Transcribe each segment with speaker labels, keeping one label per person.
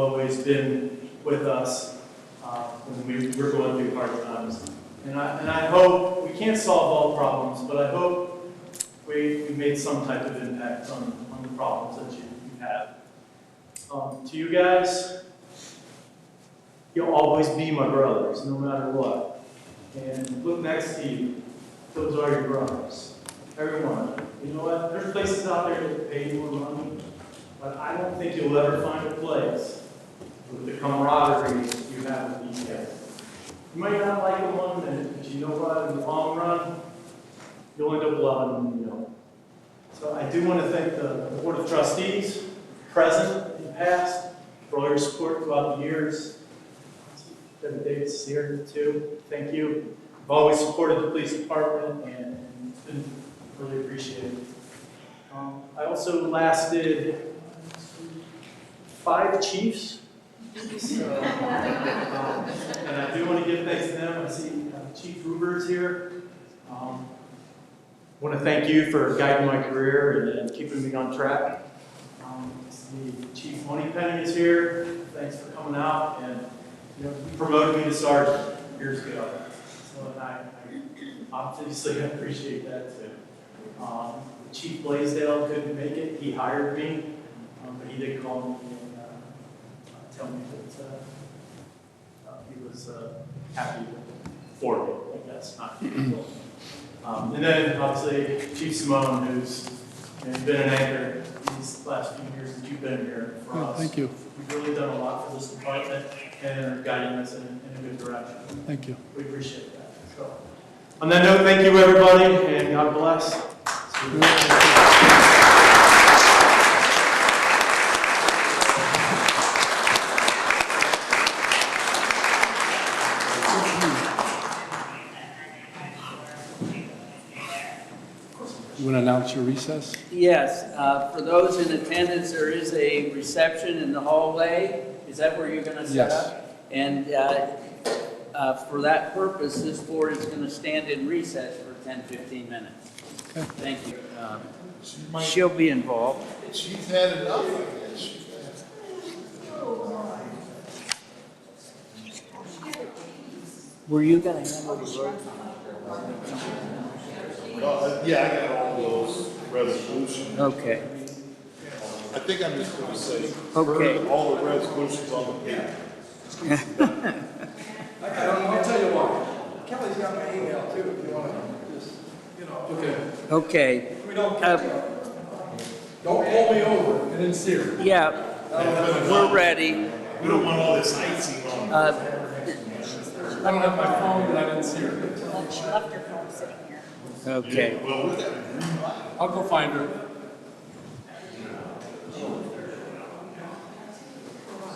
Speaker 1: always been with us uh, when we were going through hard times. And I, and I hope, we can't solve all problems, but I hope we, we made some type of impact on, on the problems that you you have. Um, To you guys, you'll always be my brothers, no matter what. And look next to you, those are your brothers, everyone. You know what, there's places out there that pay you more money, but I don't think you'll ever find a place with the camaraderie that you have with these guys. You might not like them one minute, but you know what, in the long run, you'll end up loving them, you know. So I do want to thank the Board of Trustees, present and past, for all your support throughout the years. Kevin Davis here too, thank you. I've always supported the police department and it's been really appreciated. Um, I also lasted five chiefs. So, um, And I do want to give thanks to them. I see uh, Chief Ruber's here. Um, Want to thank you for guiding my career and- and keeping me on track. Um, I see Chief Moneypenny is here. Thanks for coming out and, you know, you promoted me to sergeant years ago. So and I I obviously appreciate that too. Um, Chief Blaisdell couldn't make it. He hired me. Um, but he did call me and, uh, uh, tell me that, uh, uh, he was, uh, happy for me, I guess, not. Um, and then obviously Chief Simone, who's, you know, been an anchor these last few years that you've been here for
Speaker 2: Oh,
Speaker 1: us.
Speaker 2: Thank you,
Speaker 1: You've really done a lot for this department and are guiding us in, in a good direction.
Speaker 2: thank you.
Speaker 1: We appreciate that, so. On that note, thank you, everybody, and God bless.
Speaker 2: You want to announce your recess?
Speaker 3: Yes, uh, for those in attendance, there is a reception in the hallway. Is that where you're going to set
Speaker 2: Yes.
Speaker 3: up? And uh, uh, for that purpose, this board is going to stand in recess for 10, 15 minutes.
Speaker 2: Okay.
Speaker 3: Thank you. Um,
Speaker 4: She might,
Speaker 3: She'll be involved.
Speaker 4: she's had enough of this. She's had-
Speaker 3: Were you going to handle the vote?
Speaker 4: Uh, Yeah, I got all those resolutions.
Speaker 3: Okay,
Speaker 4: I think I'm just gonna say,
Speaker 3: Okay.
Speaker 4: heard all the resolutions on the page.
Speaker 5: I don't know, I'll tell you what, Kelly's got my email too, if you wanna just, you know. Okay.
Speaker 3: okay.
Speaker 5: We don't,
Speaker 3: Uh,
Speaker 5: don't pull me over and then see her.
Speaker 3: Yeah, we're ready.
Speaker 4: Uh, We don't want all this icing on.
Speaker 3: Uh,
Speaker 5: I don't have my phone, but I didn't see her.
Speaker 6: Well, she left her phone sitting here.
Speaker 3: Okay.
Speaker 5: I'll go find her.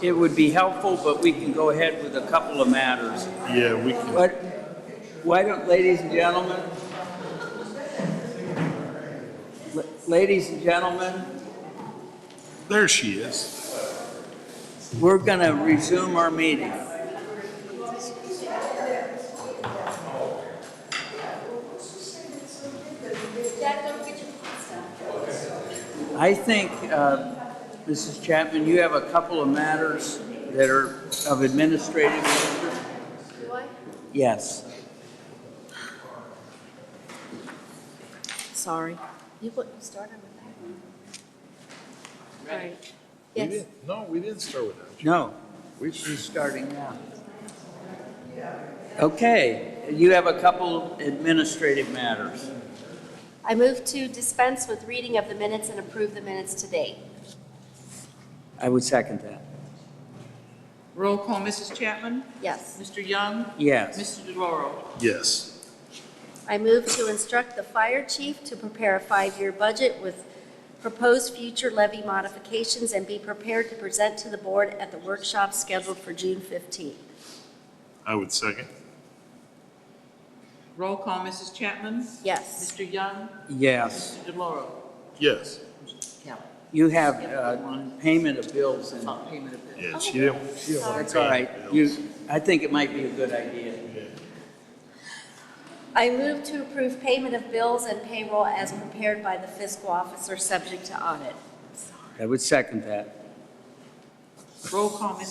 Speaker 3: It would be helpful, but we can go ahead with a couple of matters.
Speaker 4: Yeah, we can.
Speaker 3: But why don't, ladies and gentlemen, la- ladies and gentlemen,
Speaker 4: There she is.
Speaker 3: we're going to resume our meeting.
Speaker 6: Dad, don't get your pizza.
Speaker 3: I think, uh, Mrs. Chapman, you have a couple of matters that are of administrative nature.
Speaker 6: Do I?
Speaker 3: Yes.
Speaker 6: Sorry. You put, you started with that one. Right.
Speaker 4: We
Speaker 6: Yes,
Speaker 4: didn't- No, we didn't start with that.
Speaker 3: No,
Speaker 4: We
Speaker 3: she's starting now. Okay, you have a couple administrative matters.
Speaker 6: I move to dispense with reading of the minutes and approve the minutes today.
Speaker 3: I would second that.
Speaker 7: Roll call, Mrs. Chapman?
Speaker 6: Yes.
Speaker 7: Mr. Young?
Speaker 3: Yes.
Speaker 7: Mr. DeLauro?
Speaker 4: Yes.
Speaker 6: I move to instruct the fire chief to prepare a five-year budget with proposed future levy modifications and be prepared to present to the board at the workshop scheduled for June 15th.
Speaker 4: I would second.
Speaker 7: Roll call, Mrs. Chapman?
Speaker 6: Yes.
Speaker 7: Mr. Young?
Speaker 3: Yes.
Speaker 7: Mr. DeLauro?
Speaker 4: Yes.
Speaker 7: Yeah.
Speaker 3: You have uh, payment of bills and
Speaker 7: Not payment of bills.
Speaker 4: Yeah, she didn't. she didn't want
Speaker 3: that's
Speaker 4: to
Speaker 3: all
Speaker 4: pay
Speaker 3: right.
Speaker 4: the bills.
Speaker 3: You, I think it might be a good idea.
Speaker 6: I move to approve payment of bills and payroll as prepared by the fiscal officer, subject to audit.
Speaker 3: I would second that.
Speaker 7: Roll call, Mrs.